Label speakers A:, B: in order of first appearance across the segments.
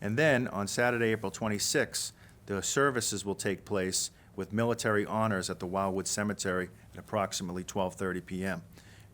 A: And then on Saturday, April 26th, the services will take place with military honors at the Wildwood Cemetery at approximately 12:30 PM.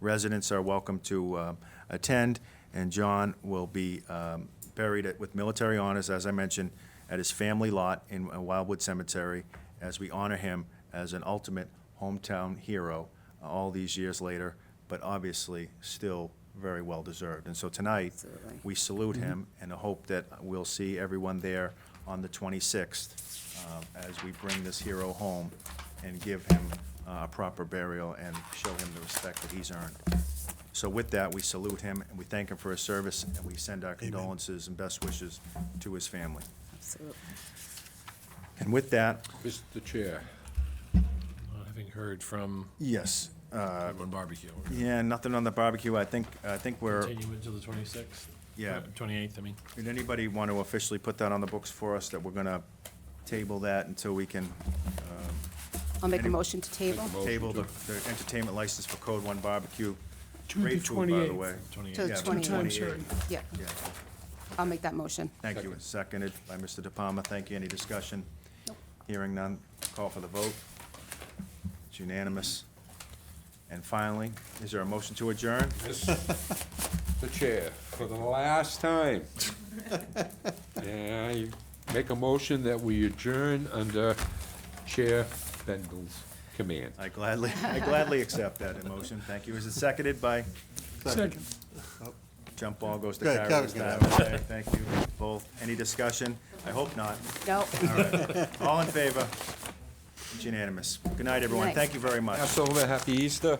A: Residents are welcome to um, attend, and John will be um, buried at- with military honors, as I mentioned, at his family lot in uh, Wildwood Cemetery, as we honor him as an ultimate hometown hero uh, all these years later, but obviously still very well-deserved. And so tonight,
B: Absolutely.
A: we salute him and hope that we'll see everyone there on the 26th um, as we bring this hero home and give him uh, a proper burial and show him the respect that he's earned. So with that, we salute him and we thank him for his service and we send our condolences and best wishes to his family.
B: Absolutely.
A: And with that,
C: Mr. Chair, uh, having heard from
A: yes, uh,
C: everyone barbecue, we're gonna
A: yeah, nothing on the barbecue. I think, I think we're,
C: continue until the 26th?
A: Yeah.
C: Uh, 28th, I mean.
A: did anybody want to officially put that on the books for us, that we're going to table that until we can
B: I'll make a
A: Any-
B: motion to table
C: Make a
A: table the the entertainment license for Code One Barbecue.
D: To the
A: Great food, by the
D: 28th.
A: way.
C: 28th.
B: to the
A: Yeah,
D: Two times
B: 28th.
D: certain.
B: Yeah,
A: Yeah,
B: I'll make that motion.
A: thank you.
C: Second.
A: Seconded by Mr. De Palma. Thank you. Any discussion?
B: Nope.
A: Hearing none, call for the vote. It's unanimous. And finally, is there a motion to adjourn?
C: Mr. Chair, for the last time, I make a motion that we adjourn under Chair Bendel's command.
A: I gladly, I gladly accept that motion. Thank you. Is it seconded by,
D: Second.
A: jump ball goes to
E: Good,
A: Kyra
E: Kyra's
A: this
E: gonna
A: time. Okay, Thank you both. Any discussion? I hope not.
B: No,
A: All right. All in favor? It's unanimous. Good night, everyone.
B: night.
A: Thank you very much.
C: Passover, happy Easter.